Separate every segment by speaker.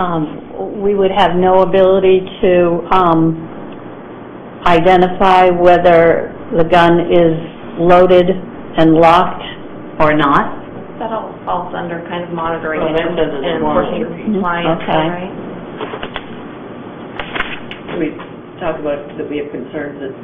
Speaker 1: Um, we would have no ability to, um, identify whether the gun is loaded and locked or not?
Speaker 2: That all falls under kind of monitoring
Speaker 3: Well,
Speaker 2: and
Speaker 3: that says it's
Speaker 2: and enforcing
Speaker 3: monitoring.
Speaker 2: compliance,
Speaker 1: Okay.
Speaker 2: right?
Speaker 3: Can we talk about that we have concerns that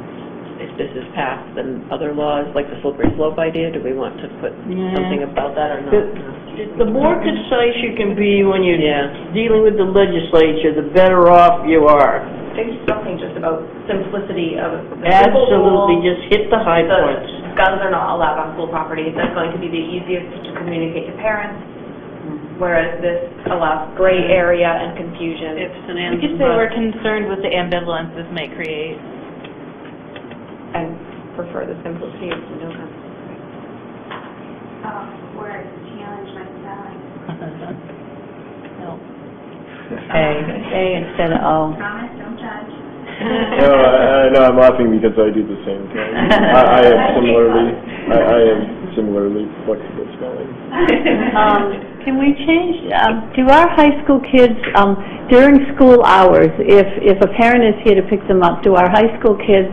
Speaker 3: if this is passed, then other laws, like the slippery slope idea, do we want to put something about that or
Speaker 4: The-
Speaker 3: not?
Speaker 4: The more concise you can be when you're
Speaker 3: Yeah,
Speaker 4: dealing with the legislature, the better off you are.
Speaker 2: Maybe something just about simplicity of the simple
Speaker 4: Absolutely,
Speaker 2: rule,
Speaker 4: just hit the high
Speaker 2: the
Speaker 4: points.
Speaker 2: guns are not allowed on school property, that's going to be the easiest to communicate to parents,
Speaker 3: Mm-hmm.
Speaker 2: whereas this allows gray area and confusion.
Speaker 5: If We could say we're concerned with the ambivalence this may create.
Speaker 2: I prefer the simplicity of no guns.
Speaker 6: um, word challenge my spelling.
Speaker 1: A instead of O.
Speaker 6: Promise, don't judge.
Speaker 7: No, I, I, no, I'm laughing because I do the same thing. I, I am similarly, I, I am similarly flexible spelling.
Speaker 3: uh,
Speaker 1: Um, Can we change, um, do our high school kids, um, during school hours, if, if a parent is here to pick them up, do our high school kids,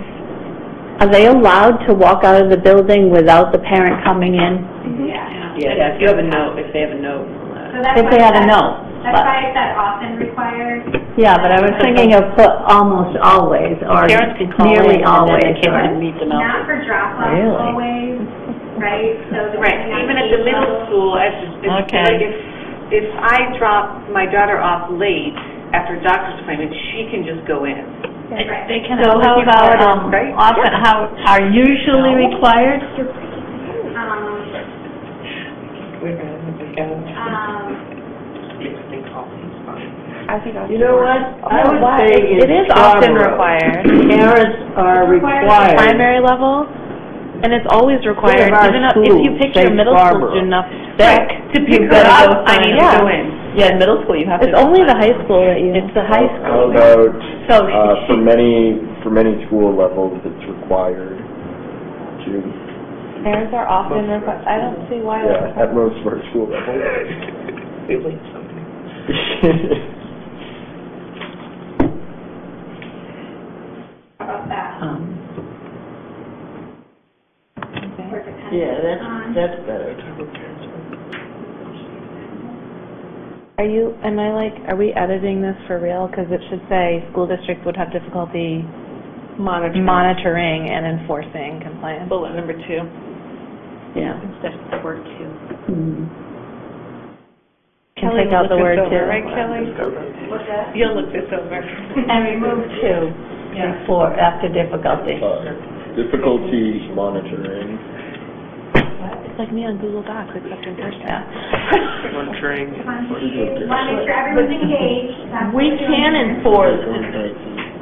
Speaker 1: are they allowed to walk out of the building without the parent coming in?
Speaker 6: Yeah.
Speaker 3: yeah, if you have a note, if they have a note. uh,
Speaker 6: So that's
Speaker 1: If
Speaker 6: why
Speaker 1: they have a
Speaker 6: that-
Speaker 1: note.
Speaker 6: That's why it's that often required.
Speaker 1: Yeah, but I was thinking of put almost always, or
Speaker 4: Parents can call in
Speaker 1: nearly
Speaker 4: and then the
Speaker 1: always.
Speaker 4: kids can meet them out.
Speaker 6: Not for drop off
Speaker 1: Really?
Speaker 6: always, right? So the-
Speaker 8: Right, even at the middle school, as, if-
Speaker 4: Okay.
Speaker 8: like, if, if I drop my daughter off late after a doctor's appointment, she can just go in.
Speaker 5: They can
Speaker 1: So how about, um,
Speaker 8: Right?
Speaker 1: often, how, are usually required?
Speaker 6: Um, um,
Speaker 4: You know what? I would say in
Speaker 5: Oh, It is often
Speaker 4: Scarborough,
Speaker 5: required,
Speaker 4: Parents are required.
Speaker 5: primary level, and it's always required,
Speaker 4: Some of our
Speaker 5: even up- if you
Speaker 4: schools
Speaker 5: pick your
Speaker 4: say
Speaker 5: middle
Speaker 4: Scarborough.
Speaker 5: school student up sick,
Speaker 3: To
Speaker 4: pick her up,
Speaker 8: I need to
Speaker 5: Yeah.
Speaker 8: go in.
Speaker 3: Yeah, in middle school, you have to.
Speaker 5: it's only the high school that you...
Speaker 1: It's the high
Speaker 7: How about, uh, for many, for many school levels, it's required to,
Speaker 5: Parents are often required, I don't see why...
Speaker 7: yeah, at most for school levels.
Speaker 6: how about that? We're dependent
Speaker 4: Yeah, that's,
Speaker 6: on-
Speaker 4: that's better.
Speaker 6: Um,
Speaker 5: Are you, am I like, are we editing this for real? Because it should say, "School district would have difficulty
Speaker 2: Monitoring.
Speaker 5: monitoring and enforcing compliance."
Speaker 2: Bullet number two.
Speaker 1: Yeah.
Speaker 2: Instead of the word two.
Speaker 1: Can take out the word to,
Speaker 5: Kelly?
Speaker 6: What's that?
Speaker 5: You'll look this over.
Speaker 1: and remove to before, after difficulty.
Speaker 7: Uh, Difficulty monitoring.
Speaker 5: It's like me on Google Docs, except in person.
Speaker 6: One, two, one, make sure everyone's engaged. That's
Speaker 4: We
Speaker 6: what we're
Speaker 4: can
Speaker 6: doing.
Speaker 4: enforce,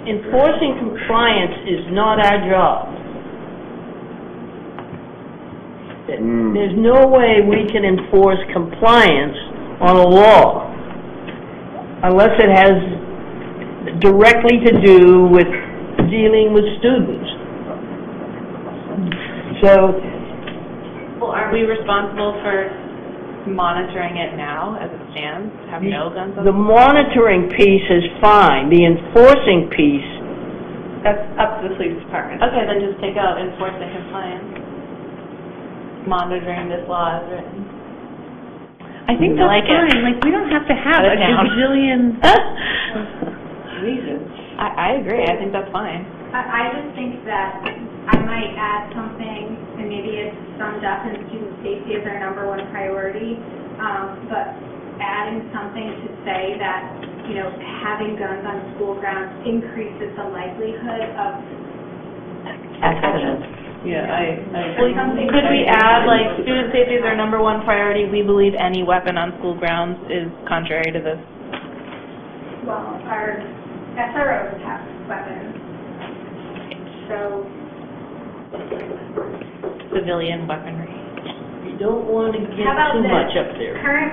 Speaker 4: enforcing compliance is not our job.
Speaker 7: Mm.
Speaker 4: There's no way we can enforce compliance on a law unless it has directly to do with dealing with students. So,
Speaker 5: Well, are we responsible for monitoring it now as it stands? Have no guns
Speaker 9: Mm-hmm.
Speaker 5: on?
Speaker 4: the monitoring piece is fine, the enforcing piece,
Speaker 2: That's up to the police department.
Speaker 5: Okay, then just take out enforcing compliance. Monitoring this law as written.
Speaker 9: I think that's
Speaker 5: Like it.
Speaker 9: fine, like, we don't have to have
Speaker 5: Shut it
Speaker 9: a
Speaker 5: down.
Speaker 9: gazillion,
Speaker 5: I, I agree, I think that's fine.
Speaker 6: I, I just think that I might add something, and maybe it's summed up in student safety as our number one priority, um, but adding something to say that, you know, having guns on school grounds increases the likelihood of,
Speaker 1: Accident.
Speaker 5: Yeah, I,
Speaker 6: or something.
Speaker 5: Could we add, like, student safety is our number one priority, we believe any weapon on school grounds is contrary to this?
Speaker 6: Well, our SROs have weapons, so
Speaker 5: civilian weaponry.
Speaker 4: you don't want to get
Speaker 6: How about
Speaker 4: too
Speaker 6: this?
Speaker 4: much up there.
Speaker 6: current